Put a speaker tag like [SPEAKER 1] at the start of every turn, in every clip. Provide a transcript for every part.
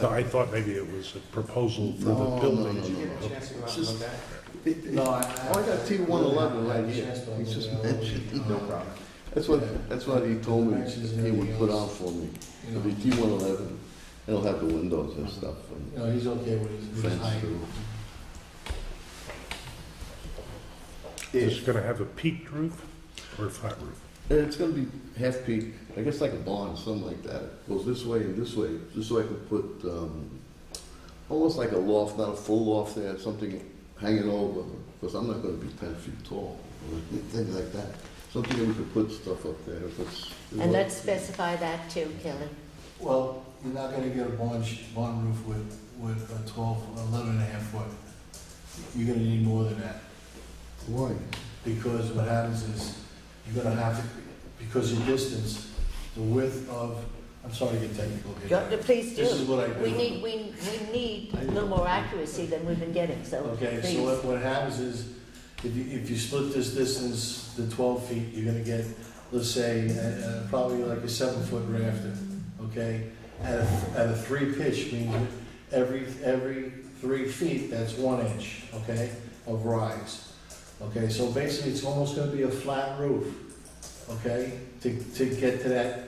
[SPEAKER 1] No, I thought maybe it was a proposal for the
[SPEAKER 2] No, Oh, no,
[SPEAKER 1] building.
[SPEAKER 2] no,
[SPEAKER 3] Did you
[SPEAKER 2] no.
[SPEAKER 3] get a chance to go out and
[SPEAKER 2] Just-
[SPEAKER 3] look at it?
[SPEAKER 2] It- it-
[SPEAKER 4] No,
[SPEAKER 2] Oh,
[SPEAKER 4] I-
[SPEAKER 2] I got T one eleven right here, he's just mentioned.
[SPEAKER 4] No problem.
[SPEAKER 2] That's what, that's what he told me he would put on for me, it'll be T one eleven, it'll have the windows and stuff and
[SPEAKER 4] No, he's okay with his, his
[SPEAKER 2] fence
[SPEAKER 4] height.
[SPEAKER 2] through.
[SPEAKER 1] Is it gonna have a peaked roof or a flat roof?
[SPEAKER 2] And it's gonna be half peak, I guess like a barn, something like that. It Goes this way and this way, just so I can put, um, almost like a loft, not a full loft there, something hanging over, because I'm not gonna be ten feet tall, or things like that. Something that we could put stuff up there if it's.
[SPEAKER 5] And let's specify that too, Kelly.
[SPEAKER 4] Well, you're not gonna get a barn, sh- barn roof with, with a twelve, eleven and a half foot. You're gonna need more than that,
[SPEAKER 2] Why?
[SPEAKER 4] because what happens is, you're gonna have to, because of distance, the width of, I'm sorry to get technical
[SPEAKER 5] Go-
[SPEAKER 4] here.
[SPEAKER 5] Please
[SPEAKER 4] This is
[SPEAKER 5] do.
[SPEAKER 4] what I do.
[SPEAKER 5] We need, we, we need a little more accuracy than we've been getting, so
[SPEAKER 4] Okay, so
[SPEAKER 5] please.
[SPEAKER 4] what, what happens is, if you, if you split this distance to twelve feet, you're gonna get, let's say, uh, uh, probably like a seven-foot rafter, okay? At a, at a three pitch means every, every three feet, that's one inch, okay, of rise. Okay, so basically, it's almost gonna be a flat roof, okay, to, to get to that,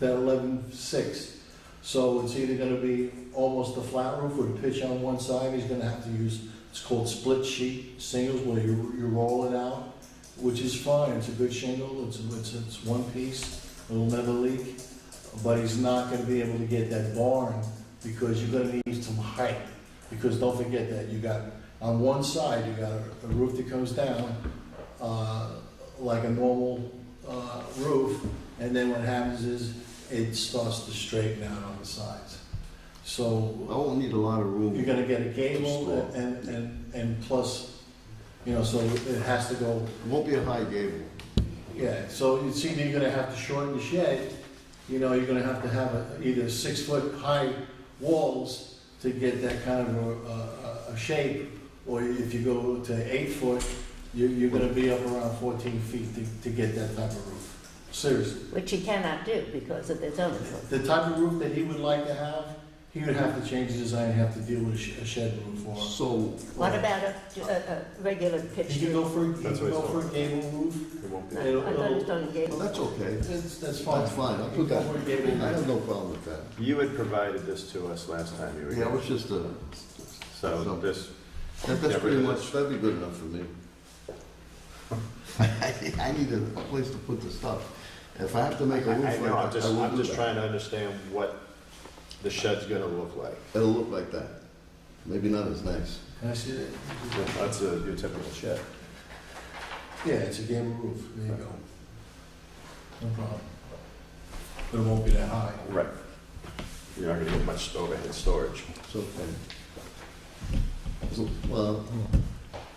[SPEAKER 4] that eleven-six. So it's either gonna be almost a flat roof with a pitch on one side, he's gonna have to use it's called split sheet shingles where you, you roll it out, which is fine, it's a good shingle, it's, it's, it's one piece, it'll never leak. But he's not gonna be able to get that barn because you're gonna need some height. Because don't forget that, you got, on one side, you got a roof that comes down, uh, like a normal, uh, roof. And then what happens is it starts to straighten out on the sides. So
[SPEAKER 2] I won't need a lot of room.
[SPEAKER 4] you're gonna get a gable
[SPEAKER 2] Store.
[SPEAKER 4] and, and, and plus, you know, so it has to go,
[SPEAKER 2] It won't be a high gable.
[SPEAKER 4] yeah, so you see, you're gonna have to shorten the shed, you know, you're gonna have to have a- either six-foot high walls to get that kind of a, a- a, a shape, or if you go to eight foot, you, you're gonna be up around fourteen feet to, to get that type of roof, seriously.
[SPEAKER 5] Which you cannot do because of the zoning code.
[SPEAKER 4] The type of roof that he would like to have, he would have to change the design, have to deal with a sh- a shed roof or.
[SPEAKER 2] So,
[SPEAKER 5] What about a, a, a regular
[SPEAKER 4] You
[SPEAKER 5] pitch
[SPEAKER 4] can go
[SPEAKER 5] roof?
[SPEAKER 4] for, you can
[SPEAKER 6] That's what
[SPEAKER 4] go
[SPEAKER 6] it's
[SPEAKER 4] for a gable roof.
[SPEAKER 6] It won't
[SPEAKER 5] I
[SPEAKER 6] be.
[SPEAKER 5] I thought it was only
[SPEAKER 2] well,
[SPEAKER 5] gable.
[SPEAKER 2] that's okay.
[SPEAKER 4] That's, that's fine.
[SPEAKER 2] That's fine, I'll
[SPEAKER 4] You
[SPEAKER 2] put
[SPEAKER 4] can
[SPEAKER 2] that,
[SPEAKER 4] go for a gable
[SPEAKER 2] I have
[SPEAKER 4] roof.
[SPEAKER 2] no problem with that.
[SPEAKER 6] You had provided this to us last time you were
[SPEAKER 2] Yeah, it
[SPEAKER 6] here,
[SPEAKER 2] was just a,
[SPEAKER 6] so this,
[SPEAKER 2] that- that's
[SPEAKER 6] Yeah,
[SPEAKER 2] pretty
[SPEAKER 6] but-
[SPEAKER 2] much, that'd be good enough for me. I, I need a a place to put the stuff. If I have to
[SPEAKER 6] I
[SPEAKER 2] make a
[SPEAKER 6] I
[SPEAKER 2] roof like
[SPEAKER 6] know, I'm
[SPEAKER 2] that,
[SPEAKER 6] just,
[SPEAKER 2] I will
[SPEAKER 6] I'm
[SPEAKER 2] do
[SPEAKER 6] just
[SPEAKER 2] that.
[SPEAKER 6] trying to understand what the shed's gonna look like.
[SPEAKER 2] It'll look like that. Maybe not as nice.
[SPEAKER 4] Can I see that?
[SPEAKER 6] That's a, your typical shed.
[SPEAKER 4] Yeah, it's a gable roof, there you go. No problem. But it won't be that high.
[SPEAKER 6] Right. You're not gonna get much overhead storage.
[SPEAKER 2] It's okay. So, well,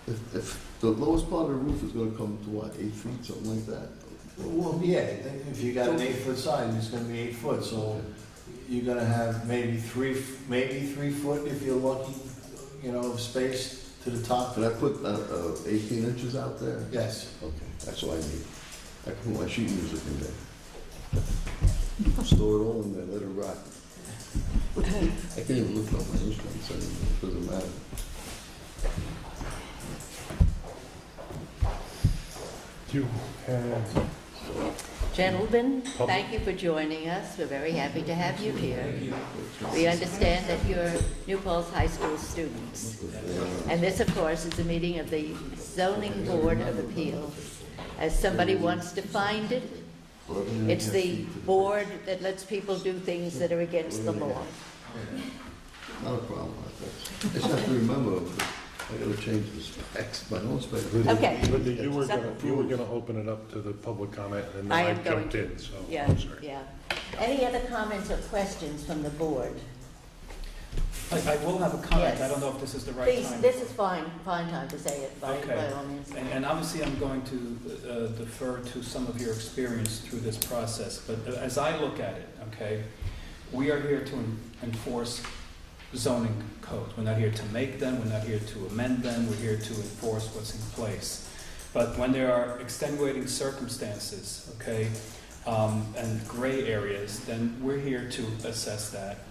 [SPEAKER 2] if, if the lowest part of the roof is gonna come to what, eight feet, something like that?
[SPEAKER 4] Well, yeah, if you got an eight-foot side, it's gonna be eight foot, so you're gonna have maybe three, maybe three foot if you're lucky, you know, of space to the top.
[SPEAKER 2] Can I put, uh, uh, eighteen inches out there?
[SPEAKER 4] Yes.
[SPEAKER 2] Okay, that's what I need. I can put my sheet music in there. Store it all in there, let it rot. I can't even lift up my instruments anymore, it doesn't matter.
[SPEAKER 1] Do you have,
[SPEAKER 5] Gentlemen, thank you for joining us. We're very happy to have you here. We understand that you're New Paltz High School students. And this, of course, is a meeting of the zoning board of appeals. As somebody wants to find it, it's the board that lets people do things that are against the law.
[SPEAKER 2] Not a problem, I guess. I just have to remember, I gotta change the specs, my own specs.
[SPEAKER 5] Okay.
[SPEAKER 1] but you were gonna, you were gonna open it up to the public comment and then
[SPEAKER 5] I
[SPEAKER 1] I
[SPEAKER 5] am going
[SPEAKER 1] jumped
[SPEAKER 5] to.
[SPEAKER 1] in, so
[SPEAKER 5] Yeah,
[SPEAKER 1] I'm sorry.
[SPEAKER 5] yeah. Any other comments or questions from the board?
[SPEAKER 7] I, I will have a comment, I
[SPEAKER 5] Yes.
[SPEAKER 7] don't know if this is the right
[SPEAKER 5] Please,
[SPEAKER 7] time.
[SPEAKER 5] this is fine, fine time to say it, by,
[SPEAKER 7] Okay.
[SPEAKER 5] by all means.
[SPEAKER 7] And, and obviously, I'm going to uh, defer to some of your experience through this process, but uh, as I look at it, okay, we are here to en- enforce zoning codes. We're not here to make them, we're not here to amend them, we're here to enforce what's in place. But when there are extenuating circumstances, okay, um, and gray areas, then we're here to assess that